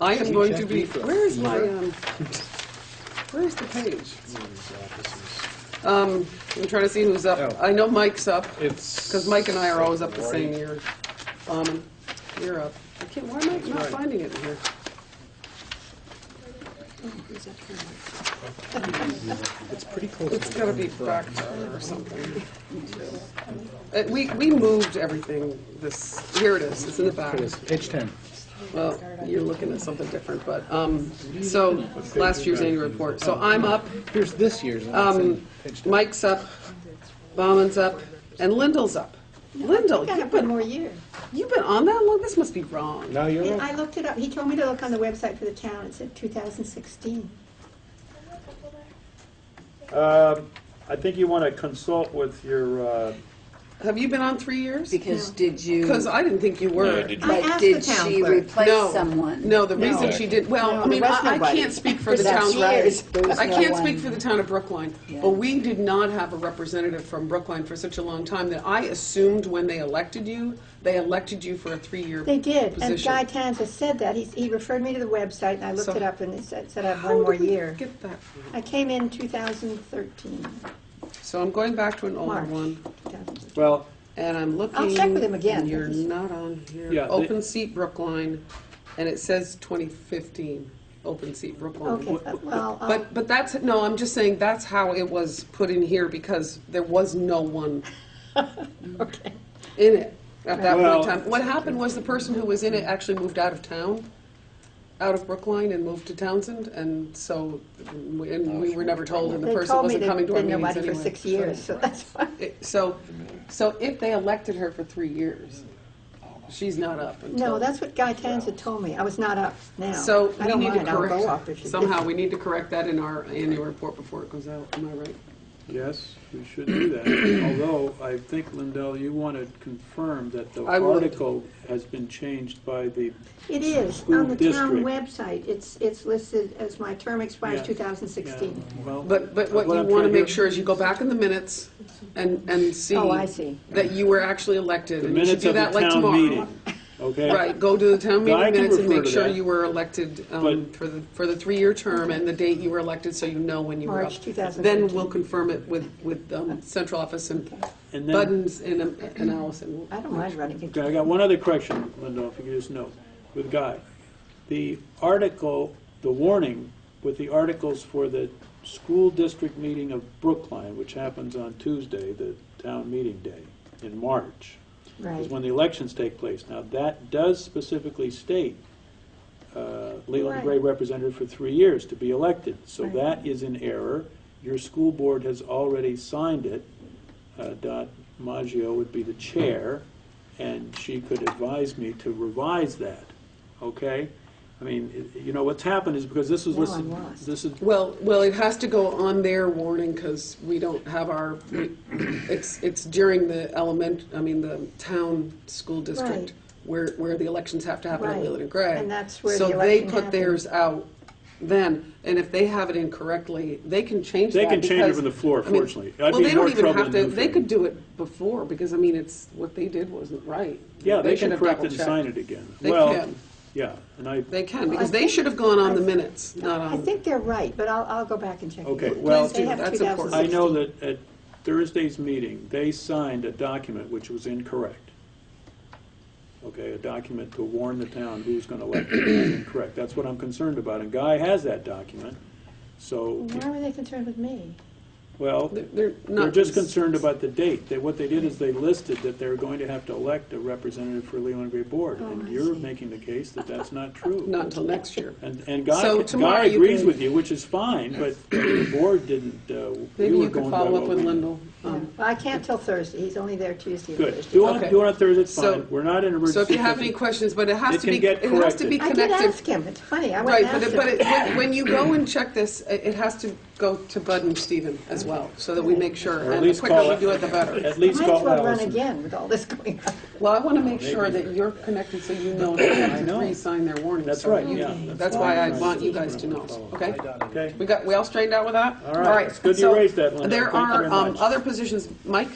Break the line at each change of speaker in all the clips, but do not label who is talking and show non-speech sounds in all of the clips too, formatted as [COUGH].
I am going to
Check
be,
me for-
where is my, um, where's the page? Um, I'm trying to see who's up.
Oh.
I know Mike's up,
It's.
because Mike and I are always up the same
right-
year. Um, you're up. I can't, why am I not
right.
finding it in here?
It's pretty close.
It's
to
gotta be
one.
back there or something. Uh, We, we moved everything this, here it is, it's in the back.
It is, Page ten.
Well, you're looking at something different, but, um, so, last year's annual report. So I'm up,
Here's this year's. and it's in
um,
page 10.
Mike's up, Bauman's up, and Lindell's up. Lindell,
Got
you've
up one
been,
more year.
you've been on that long? This must be wrong.
Now you're
And I
up.
looked it up. He told me to look on the website for the town. It said 2016.
Um, I think you want to consult with your, uh,
Have you been on three years?
Because
No.
did you?
Because I didn't think you
No,
were.
did you-
I
But
asked
did
the town
she
clerk.
No.
replace someone?
No, the reason
No.
she did, well,
No,
I mean,
there was
I I
nobody.
can't speak for the
That's
town.
years. There was
I
no
can't
one.
speak for the town of Brookline,
Yeah.
but we did not have a representative from Brookline for such a long time that I assumed when they elected you, they elected you for a three-year
They did. And
position.
Guy Tanza said that. He, he referred me to the website and I looked
So-
it up and it said, said I have
How
one
did
more
we
year.
Get that.
I came in 2013,
So I'm going back to an older
March.
one,
2013.
Well,
and I'm looking.
check with him again.
and you're not on here.
Yeah, they-
Open seat Brookline, and it says 2015, open seat Brookline.
Okay, but- well, I'll-
But, but that's, no, I'm just saying, that's how it was put in here, because there was no one
okay.
in it at that point in
Well-
time. What happened was the person who was in it actually moved out of town, out of Brookline, and moved to Townsend, and so, and we were never told, and the
They
person
told me
wasn't
there'd
coming to our
been
meetings anyway.
nobody for six years, so that's why.
It- So, so if they elected her for three years, she's not up until.
No, that's what Guy Tanza told me. I was not up now.
So
I
we
don't
need to
mind. I'll go up if
correct,
you-
somehow we need to correct that in our annual report before it goes out, am I right?
Yes, we should do that, although I think, Lindell, you want to confirm that the
I would.
article has been changed by the, uh,
It is.
School
On the town
district.
website, it's, it's listed as my term expires
Yeah. yeah,
2016.
well... uh,
But, but what you
I'm
want to
trying
make sure is you go back in the minutes and, and see.
Oh, I see.
That you were actually elected,
The
and you should
minutes
do
of the
that like tomorrow.
town meeting, okay?
Right, go to the town meeting
Now, I can
minutes and
refer
make
to
sure
that.
you were elected um,
But-
for the, for the three-year term and the date you were elected, so you know when you were up.
March 2015.
Then we'll confirm it with, with um, central office and
And then,
Buttons and um, and Allison.
I don't mind running again.
okay, I got one other correction, Lindell, if you could just note, with Guy. The article, the warning with the articles for the school district meeting of Brookline, which happens on Tuesday, the town meeting day in March, is
Right.
when the elections take place. Now, that does specifically state uh, Leland
Right.
Gray represented for three years to be elected. So
Right.
that is in error. Your school board has already signed it. Uh, Dot Maggio would be the chair, and she could advise me to revise that, okay? I mean, i- you know, what's happened is because this was
Now
listed,
I'm lost.
this is,
Well, well, it has to go on their warning because we don't have our, we- it's, it's during the element, I mean, the town school district
Right.
where, where the elections have to happen at
Right.
Leland and Gray.
And that's where the election
So they put
happened.
theirs out then, and if they have it incorrectly, they can change that.
They can change it
because-
from the floor,
I mean,
fortunately. I'd
well,
be
they
in
don't
more
even
trouble
have
than
to-
you
They
think.
could do it before because, I mean, it's, what they did wasn't right.
yeah, they
should
can
have
correct it and
double-checked.
sign it again.
They
Well,
can.
Yeah, and I,
They can,
Well, I
because they
think-
should have gone on the
I-
minutes, not on.
I think they're right, but I'll, I'll go back and check. it.
Um, Okay,
They
well-
have
Please do, that's important.
I know
2016.
that at Thursday's meeting, they signed a document which was incorrect. Okay, a document to warn the town who's going to elect them is incorrect. That's what I'm concerned about, and Guy has that document. So,
Why were they concerned with me?
well,
They're- They're not.
they're just concerned about the date. They, what they did is they listed that they're going to have to elect a representative for Leland Gray Board,
Oh,
and
I
you're
see.
making the case that
[LAUGHS]
that's not true.
Not until next year.
And, and
So
Guy,
tomorrow
Guy
you
agrees
can-
with you, which is fine, but the board didn't, uh,
Maybe
you were
you could
going by
follow up
what
with
we-
Lindell.
Yeah.
Um,
Well, I can't till Thursday. He's only there Tuesday and
Good.
Thursday.
Do it,
Okay.
do it on Thursday, it's
So-
fine. We're not in emergency.
So if you have any
session.
questions, but it has
It
to be,
can get
it has to be
I did
connected.
ask him. It's funny. I went
Right,
and
but
asked
it, but it,
him.
when- when you go and check this, it it has to go to Bud and Stephen as well, so that we make sure.
Or at
And the
least
quicker
call
we
it-
do it, the better.
At least
Might as
call
well run
Allison.
again with all this [LAUGHS] going on.
Well, I want to make sure that you're connected so you know that the
know.
three sign their warning.
That's
so
right,
you-
yeah.
That's why I want you guys to know, okay?
Okay,
We got, we all straightened out with that?
All right. It's good you
so
raised that, Linda.
There
Thank you
are
very
um,
much.
other positions, Mike?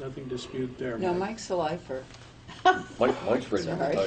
nothing dispute there.
No,
Mike.
Mike's a lifer.
Mike, Mike's ready to
Sorry.
retire.